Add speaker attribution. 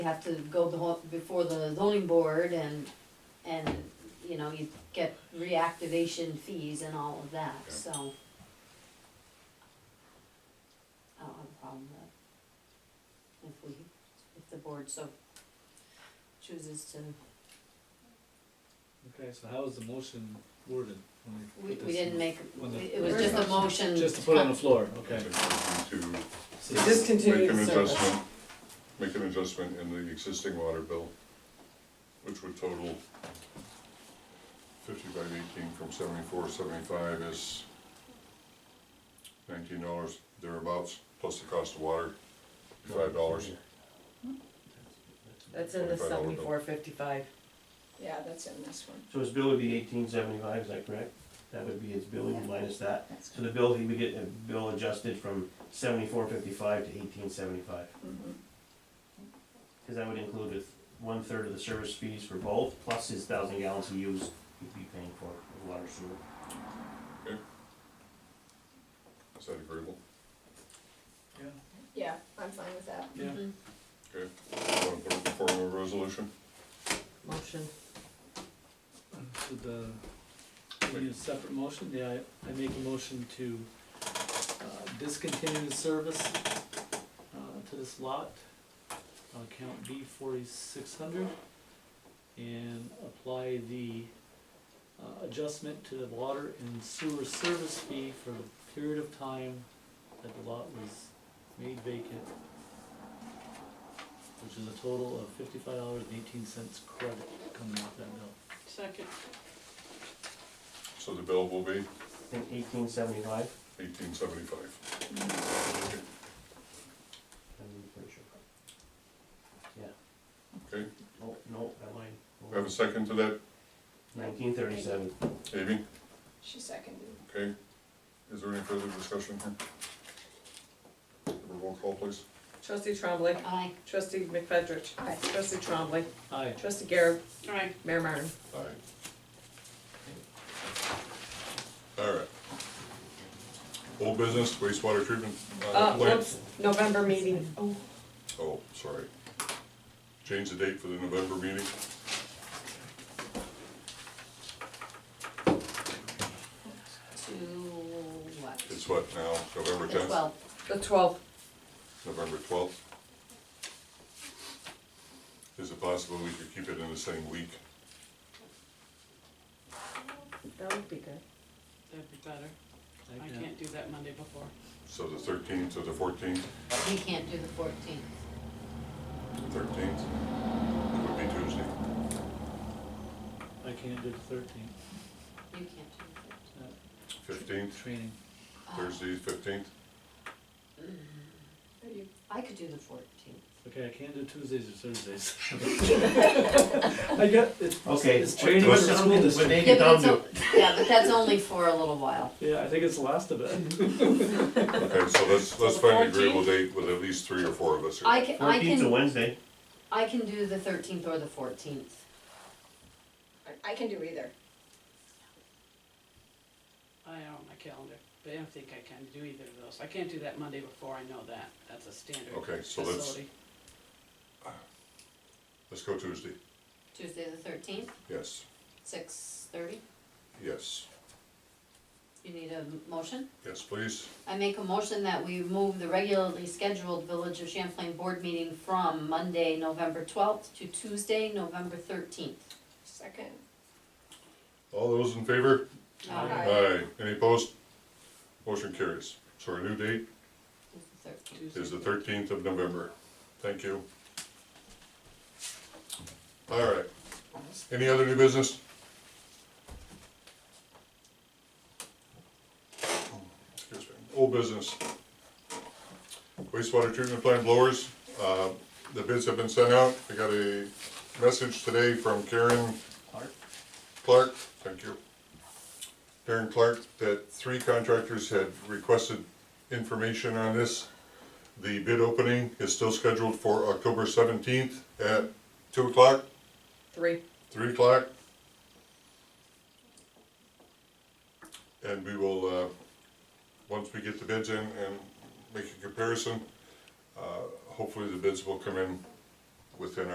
Speaker 1: you have to go the whole- before the zoning board and, and, you know, you get reactivation fees and all of that,
Speaker 2: Okay.
Speaker 1: so. I don't have a problem with that. If we, if the board so chooses to,
Speaker 3: Okay, so how is the motion worded? when
Speaker 1: we,
Speaker 3: put
Speaker 1: we
Speaker 3: this in?
Speaker 1: didn't make,
Speaker 3: when the-
Speaker 1: it was just a motion.
Speaker 3: Just to put it on the floor, okay.
Speaker 2: To
Speaker 3: So
Speaker 4: To
Speaker 3: this-
Speaker 2: make
Speaker 4: discontinue
Speaker 2: an
Speaker 4: the service.
Speaker 2: adjustment, make an adjustment in the existing water bill, which would total fifty-five eighteen from seventy-four, seventy-five is nineteen dollars thereabouts, plus the cost of water, five dollars.
Speaker 4: That's in the seventy-four fifty-five.
Speaker 5: Yeah, that's in this one.
Speaker 6: So his bill would be eighteen seventy-five, is that correct? That would be his bill
Speaker 5: Yeah.
Speaker 6: minus that.
Speaker 5: That's
Speaker 6: So the bill, he would get a bill adjusted from seventy-four fifty-five to eighteen seventy-five.
Speaker 5: Mhm.
Speaker 6: Cause that would include with one-third of the service fees for both, plus his thousand gallons he used, he'd be paying for of water sewer.
Speaker 2: Is that agreeable?
Speaker 3: Yeah,
Speaker 5: Yeah, I'm fine with that.
Speaker 3: yeah.
Speaker 1: Mhm.
Speaker 2: Okay, want to put it in form of a resolution?
Speaker 4: Motion.
Speaker 3: So the, we need a separate motion, yeah, I, I make a motion to, uh, discontinue the service, uh, to this lot, on count B forty-six hundred, and apply the, uh, adjustment to the water and sewer service fee for the period of time that the lot was made vacant, which is a total of fifty-five dollars and eighteen cents credit coming off that bill.
Speaker 7: Second,
Speaker 2: So the bill will be
Speaker 6: I think eighteen seventy-five,
Speaker 2: eighteen seventy-five.
Speaker 6: I'm pretty sure. Yeah.
Speaker 2: Okay.
Speaker 6: Oh, no, that line.
Speaker 2: Have a second to that,
Speaker 6: Nineteen thirty-seven.
Speaker 2: Amy?
Speaker 5: She seconded.
Speaker 2: Okay, is there any further discussion here? Have a Roll call, please.
Speaker 4: Trustee Trombley.
Speaker 1: Aye.
Speaker 4: Trustee McFetrich.
Speaker 5: Aye.
Speaker 4: Trustee Trombley.
Speaker 3: Aye.
Speaker 4: Trustee Garrett.
Speaker 7: alright.
Speaker 4: Mayor Martin.
Speaker 2: Aye. All right. Old business wastewater treatment uh,
Speaker 4: Uh,
Speaker 2: plant.
Speaker 4: whoops, November meeting. Oh,
Speaker 2: Oh, sorry. Change the date for the November meeting.
Speaker 1: To what?
Speaker 2: It's what now, November
Speaker 1: The
Speaker 2: tenth,
Speaker 1: twelfth.
Speaker 4: the twelfth.
Speaker 2: November twelfth? Is it possible we could keep it in the same week?
Speaker 4: That would be good.
Speaker 7: That'd be better. I
Speaker 3: Yeah.
Speaker 7: can't do that Monday before.
Speaker 2: So the thirteenth to the fourteenth,
Speaker 1: We can't do the fourteenth.
Speaker 2: thirteenth would be Tuesday.
Speaker 3: I can't do the thirteenth,
Speaker 1: You can't do the fourteenth.
Speaker 2: Fifteenth,
Speaker 3: training.
Speaker 2: Thursday, fifteenth?
Speaker 5: Are you,
Speaker 1: Uh, I could do the fourteenth.
Speaker 3: Okay, I can't do Tuesdays or Thursdays. I got, it's,
Speaker 6: Okay.
Speaker 3: it's training for
Speaker 6: What-
Speaker 3: the school
Speaker 6: When
Speaker 3: district.
Speaker 6: they get down to,
Speaker 1: Yeah, but that's only for a little while.
Speaker 3: Yeah, I think it's the last of it.
Speaker 2: Okay, so let's, let's
Speaker 7: the
Speaker 2: find an agreeable date with at least three or four of us here.
Speaker 1: I can, I
Speaker 6: fourteenth's a
Speaker 1: can,
Speaker 6: Wednesday.
Speaker 1: I can do the thirteenth or the fourteenth.
Speaker 5: I- I can do either.
Speaker 7: I don't have my calendar, but I don't think I can do either of those. I can't do that Monday before, I know that. That's a standard
Speaker 2: Okay, so let's-
Speaker 7: facility.
Speaker 2: Let's go Tuesday.
Speaker 1: Tuesday the thirteenth,
Speaker 2: Yes,
Speaker 1: six thirty.
Speaker 2: yes,
Speaker 1: You need a motion?
Speaker 2: yes, please.
Speaker 1: I make a motion that we move the regularly scheduled Village of Champlain Board meeting from Monday, November twelfth to Tuesday, November thirteenth.
Speaker 5: Second.
Speaker 2: All those in favor?
Speaker 5: Aye.
Speaker 2: Aye. Any opposed? Motion carries. So our new date
Speaker 1: the thirteenth.
Speaker 7: Tuesday.
Speaker 2: is the thirteenth of November. Thank you. All right. Any other new business? Excuse me. Old business. Wastewater treatment plant blowers, uh, the bids have been sent out. I got a message today from Karen
Speaker 6: Clark?
Speaker 2: Clark, thank you. Darren Clark, that three contractors had requested information on this. The bid opening is still scheduled for October seventeenth at two o'clock,
Speaker 4: Three.
Speaker 2: three o'clock. And we will, uh, once we get the bids in and make a comparison, uh, hopefully the bids will come in within